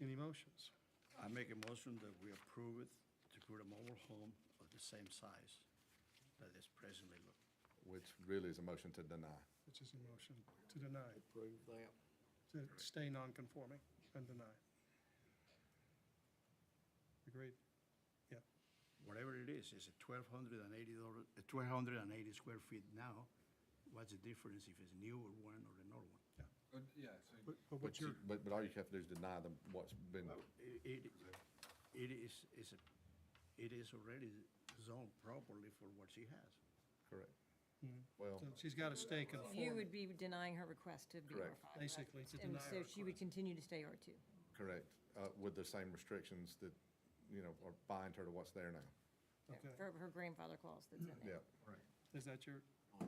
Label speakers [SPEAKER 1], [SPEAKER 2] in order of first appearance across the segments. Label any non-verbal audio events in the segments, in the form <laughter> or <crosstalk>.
[SPEAKER 1] Any motions?
[SPEAKER 2] I make a motion that we approve it to put a mobile home of the same size that is presently located.
[SPEAKER 3] Which really is a motion to deny.
[SPEAKER 1] Which is a motion to deny,
[SPEAKER 4] Approve that.
[SPEAKER 1] to stay non-conforming and deny. Agreed? Yeah.
[SPEAKER 2] Whatever it is, is it twelve hundred and eighty dollar, uh, twelve hundred and eighty square feet now? What's the difference if it's newer one or an old one?
[SPEAKER 5] Uh, Yeah, so,
[SPEAKER 1] But but
[SPEAKER 3] But
[SPEAKER 1] what's
[SPEAKER 3] you-
[SPEAKER 1] your,
[SPEAKER 3] But, but all you have to do is deny them what's been,
[SPEAKER 2] It, it- it is, is, a- it is already zoned properly for what she has.
[SPEAKER 3] correct. Well,
[SPEAKER 1] mm-hmm. so she's got to stay
[SPEAKER 6] You
[SPEAKER 1] conforming,
[SPEAKER 6] would be denying her request to be R5.
[SPEAKER 3] Correct.
[SPEAKER 6] right?
[SPEAKER 1] basically, to deny
[SPEAKER 6] And
[SPEAKER 1] our
[SPEAKER 6] so she would
[SPEAKER 1] request.
[SPEAKER 6] continue to stay R2.
[SPEAKER 3] correct, uh, with the same restrictions that, you know, are bind her to what's there now.
[SPEAKER 1] Okay.
[SPEAKER 6] Her her grandfather clause that's in
[SPEAKER 3] Yeah.
[SPEAKER 6] there.
[SPEAKER 1] Is that your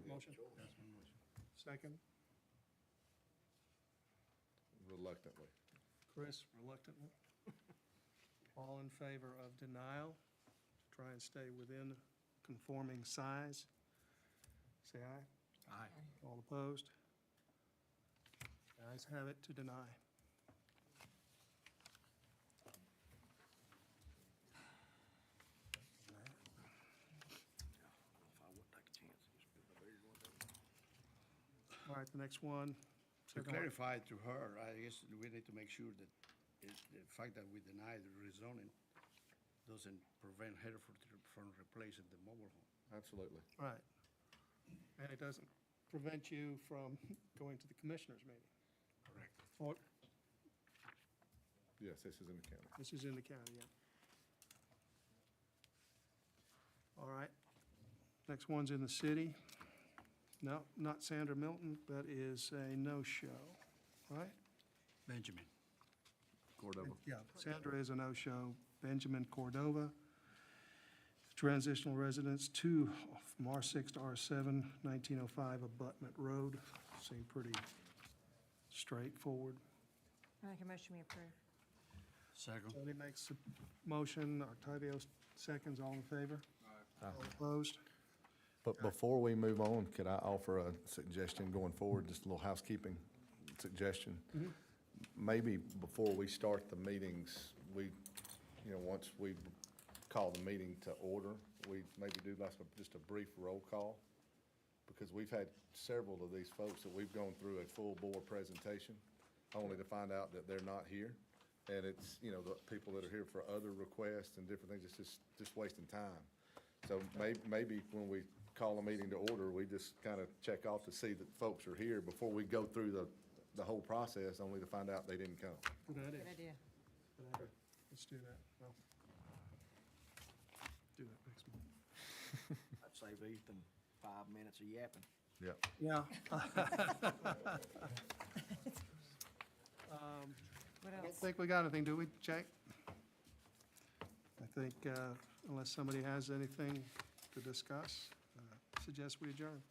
[SPEAKER 1] motion?
[SPEAKER 2] That's my motion.
[SPEAKER 1] Second?
[SPEAKER 3] Reluctantly.
[SPEAKER 1] Chris reluctantly. All in favor of denial, to try and stay within conforming size? Say aye.
[SPEAKER 2] Aye.
[SPEAKER 1] All opposed? Guys have it to deny.
[SPEAKER 4] If I would take a chance. just put the bigger one down.
[SPEAKER 1] All right, the next one.
[SPEAKER 2] To clarify to her, I guess we need to make sure that it's the fact that we deny the rezoning doesn't prevent her from- from replacing the mobile home.
[SPEAKER 3] Absolutely.
[SPEAKER 1] Right. And it doesn't prevent you from <laughs> going to the commissioners meeting.
[SPEAKER 2] Correct.
[SPEAKER 1] Or,
[SPEAKER 3] Yes, this is in the county.
[SPEAKER 1] this is in the county, yeah. All right. Next one's in the city. No, not Sandra Milton, that is a no-show, right?
[SPEAKER 2] Benjamin.
[SPEAKER 3] Cordova.
[SPEAKER 1] Yeah, Sandra is a no-show. Benjamin Cordova, transitional residence two off from R6 to R7, 1905 Abutment Road. Seemed pretty straightforward.
[SPEAKER 6] I Make a motion we approve.
[SPEAKER 2] Second.
[SPEAKER 1] Tony makes a motion, Octavio seconds, all in favor? All opposed?
[SPEAKER 3] But before we move on, could I offer a suggestion going forward, just a little housekeeping suggestion? Maybe before we start the meetings, we, you know, once we call the meeting to order, we maybe do like a- just a brief roll call. Because we've had several of these folks that we've gone through a full board presentation, only to find out that they're not here. And it's, you know, the people that are here for other requests and different things, it's just, just wasting time. So may, maybe when we call a meeting to order, we just kind of check off to see that folks are here before we go through the, the whole process, only to find out they didn't come.
[SPEAKER 1] Good idea.
[SPEAKER 6] Good idea.
[SPEAKER 1] Good idea. Let's do that. Well, Do that next month.
[SPEAKER 4] I'd save Ethan five minutes of yapping.
[SPEAKER 3] Yeah.
[SPEAKER 1] Yeah.
[SPEAKER 6] What
[SPEAKER 1] I don't
[SPEAKER 6] else?
[SPEAKER 1] think we got anything, do we, Jake? I think uh, unless somebody has anything to discuss, uh, suggest we adjourn.